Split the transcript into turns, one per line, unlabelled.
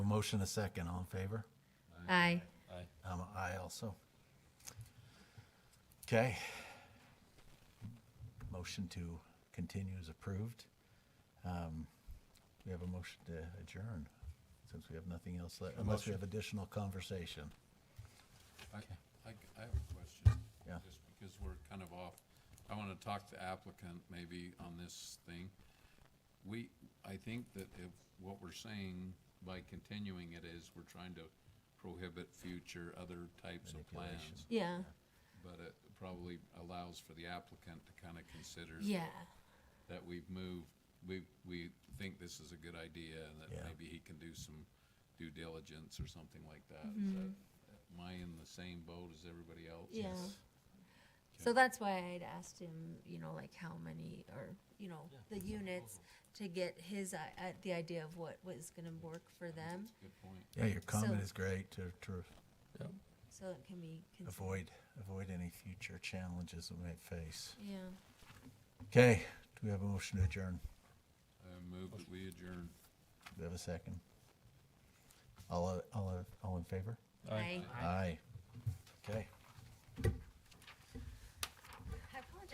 motion a second, all in favor?
Aye.
Aye.
I'm a aye also. Okay. Motion to continue is approved. Um, We have a motion to adjourn, since we have nothing else, le- unless we have additional conversation.
I, I, I have a question.
Yeah.
Just because we're kind of off, I want to talk to applicant maybe on this thing. We, I think that if, what we're saying by continuing it is we're trying to prohibit future other types of plans,
Yeah,
but it probably allows for the applicant to kind of consider
yeah,
that we've moved, we, we think this is a good idea and that
Yeah.
maybe he can do some due diligence or something like that. Is that. Am I in the same boat as everybody else?
yeah. So that's why I'd asked him, you know, like how many or, you know, the units to get his, i- uh, the idea of what was gonna work for them,
Good point.
Yeah, your comment
So-
is great to, to
so it can be considered.
avoid, avoid any future challenges we might face.
Yeah.
Okay, do we have a motion to adjourn?
I move that we adjourn.
Do we have a second? All, all, all in favor?
Aye.
Aye. Okay.